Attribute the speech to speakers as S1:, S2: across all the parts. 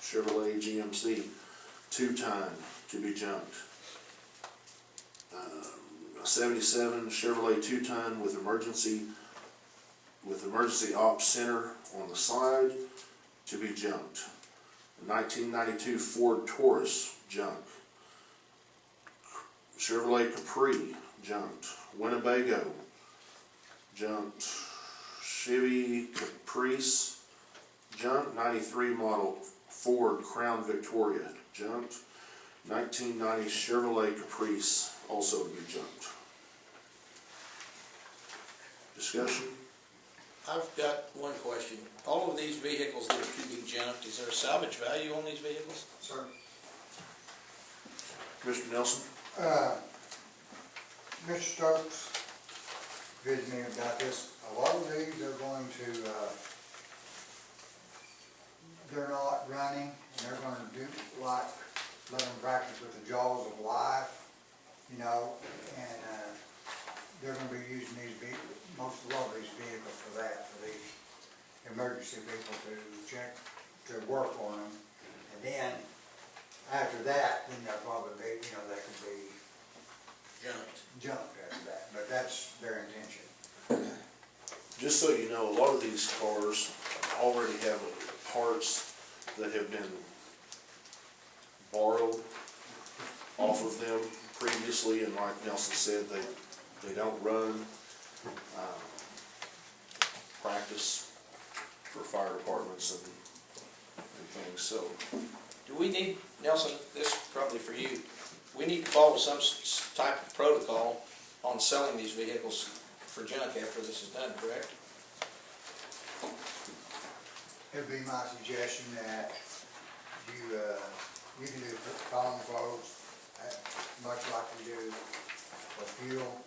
S1: Chevrolet GMC, two-time to be junked. Um, a Seventy-seven Chevrolet two-ton with emergency, with emergency ops center on the side, to be junked. Nineteen ninety-two Ford Taurus, junk. Chevrolet Capri, junked. Winnebago, junked. Chevy Caprice, junked. Ninety-three model Ford Crown Victoria, junked. Nineteen ninety Chevrolet Caprice, also to be junked. Discussion?
S2: I've got one question. All of these vehicles that are to be junked, is there a salvage value on these vehicles?
S3: Sir?
S1: Commissioner Nelson?
S3: Uh, Mr. Stokes, good to me about this. A lot of these are going to, uh, they're not running, and they're gonna do like, let them practice with the jaws of life, you know, and, uh, they're gonna be using these veh- most, a lot of these vehicles for that, for these emergency people to check, to work on them. And then, after that, then they'll probably be, you know, they could be
S2: Junked.
S3: jumped after that, but that's their intention.
S1: Just so you know, a lot of these cars already have parts that have been borrowed off of them previously, and like Nelson said, they, they don't run, um, practice for fire departments and, and things, so.
S2: Do we need, Nelson, this is probably for you, we need to follow some s- s- type of protocol on selling these vehicles for junk after this is done, correct?
S3: It'd be my suggestion that you, uh, you can do column votes, uh, much like you do for fuel,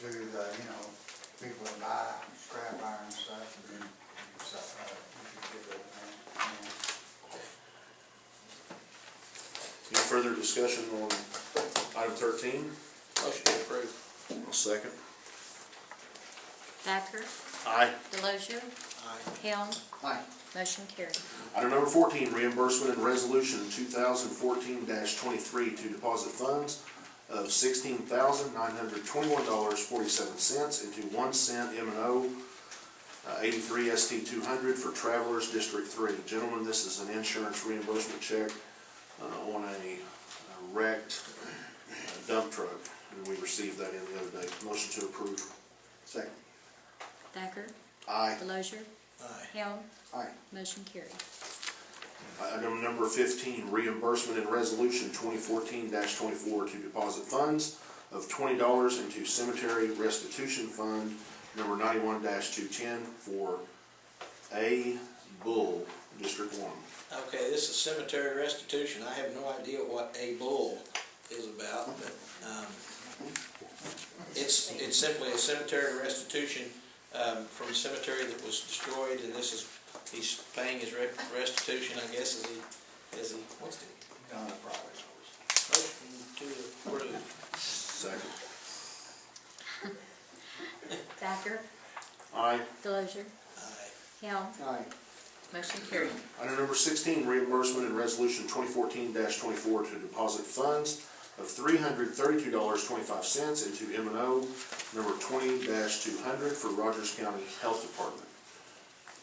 S3: to the, you know, people that buy scrap iron and stuff, and then, so, uh, you can give it, uh, you know.
S1: Any further discussion on item thirteen?
S2: Motion to approve.
S1: I'll second.
S4: Thacker,
S1: Aye.
S4: Delozer,
S2: Aye.
S4: Helm,
S2: Aye.
S4: motion carried.
S1: Item number fourteen, reimbursement and resolution two thousand fourteen twenty-three to deposit funds of sixteen thousand nine hundred twenty-one dollars forty-seven cents into one cent M and O uh, eighty-three ST two hundred for Travelers District Three. Gentlemen, this is an insurance reimbursement check uh, on a uh, wrecked uh, dump truck, and we received that in the other day. Motion to approve. Second.
S4: Thacker,
S1: Aye.
S4: Delozer,
S2: Aye.
S4: Helm,
S1: Aye.
S4: motion carried.
S1: Item number fifteen, reimbursement and resolution twenty fourteen twenty-four to deposit funds of twenty dollars into cemetery restitution fund number ninety-one two-ten for A Bull, District One.
S2: Okay, this is cemetery restitution. I have no idea what a bull is about, but, um, it's, it's simply a cemetery restitution, um, from a cemetery that was destroyed, and this is, he's paying his re- restitution, I guess, as he, as he wants to. Motion to approve.
S1: Second.
S4: Thacker,
S1: Aye.
S4: Delozer,
S2: Aye.
S4: Helm,
S3: Aye.
S4: motion carried.
S1: Item number sixteen, reimbursement and resolution twenty fourteen twenty-four to deposit funds of three hundred thirty-two dollars twenty-five cents into M and O number twenty two hundred for Rogers County Health Department.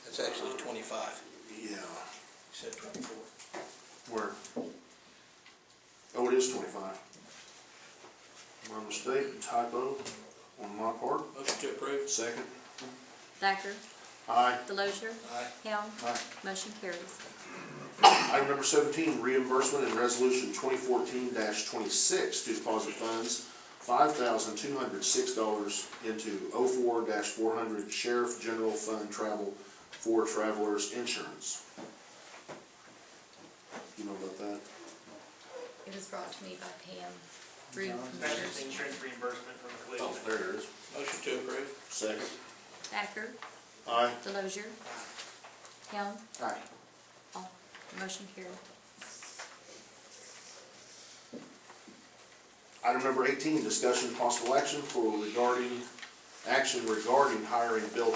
S2: That's actually twenty-five,
S1: Yeah.
S2: except twenty-four.
S1: Where? Oh, it is twenty-five. My mistake, typo on my part.
S2: Motion to approve.
S1: Second.
S4: Thacker,
S1: Aye.
S4: Delozer,
S2: Aye.
S4: Helm,
S3: Aye.
S4: motion carries.
S1: Item number seventeen, reimbursement and resolution twenty fourteen twenty-six to deposit funds, five thousand two hundred six dollars into 4 four hundred Sheriff General Fund Travel for Travelers Insurance. You know about that?
S4: It was brought to me by Pam. Reed from
S5: That's just
S4: Sheriff's-
S5: insurance reimbursement from the
S1: Oh,
S5: collision.
S1: there it is.
S2: Motion to approve.
S1: Second.
S4: Thacker,
S1: Aye.
S4: Delozer, Helm,
S1: Aye.
S4: all, motion carried.
S1: Item number eighteen, discussion possible action for regarding, action regarding hiring Bill